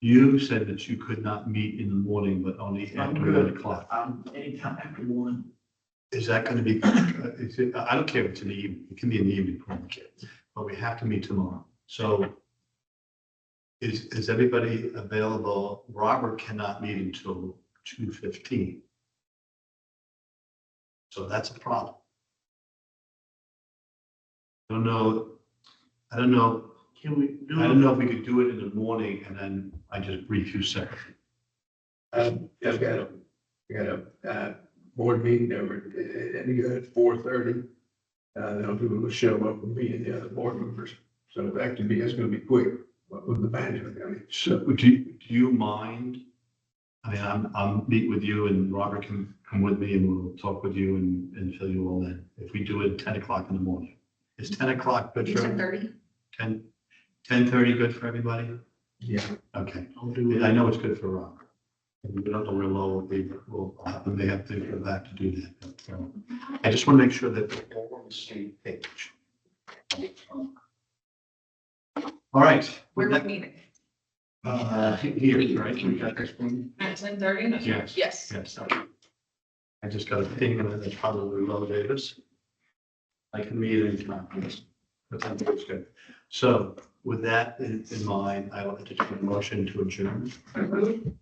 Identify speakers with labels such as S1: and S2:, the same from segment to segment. S1: You said that you could not meet in the morning, but only
S2: I'm
S1: after
S2: good.
S1: nine o'clock.
S2: Um, anytime after one.
S1: Is that gonna be, uh, is it- I don't care if it's in the evening, it can be in the evening, I don't care. but we have to meet tomorrow. So is, is everybody available? Robert cannot meet until two fifteen. So that's a problem. I don't know, I don't know,
S2: Can we do?
S1: I don't know if we could do it in the morning and then I just brief you separately.
S3: Um, yeah, we got a, we got a, uh, board meeting over, at- at, at four thirty. Uh, then people will show up and meet the other board members. So that could be, that's gonna be quick, but with the management, I mean,
S1: So do, you- do you mind? I mean, I'm, I'm meet with you and Robert can come with me and we'll talk with you and, and fill you all in. If we do it ten o'clock in the morning. Is ten o'clock good for,
S4: Ten
S1: every-
S4: thirty?
S1: ten, ten thirty good for everybody?
S3: yeah.
S1: Okay,
S2: I'll do it.
S1: I know it's good for Robert. And we don't know where low will be, will, happen. they have to go back to do that. But, um, I just want to make sure that we're all on the same page. All right.
S4: Where would meeting?
S1: Uh, here, right? We got this one.
S4: At ten thirty?
S1: Yes.
S4: Yes.
S1: Yes. I just got a thing and it's probably low Davis. I can meet anytime. But that looks good. So with that in, in mind, I will entertain a motion to adjourn.
S3: Second.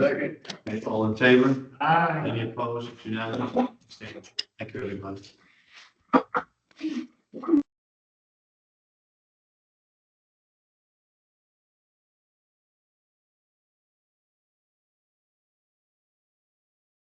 S1: Okay, All in favor?
S2: Aye.
S1: Any opposed? Unanimous? Stand. Thank you, everybody.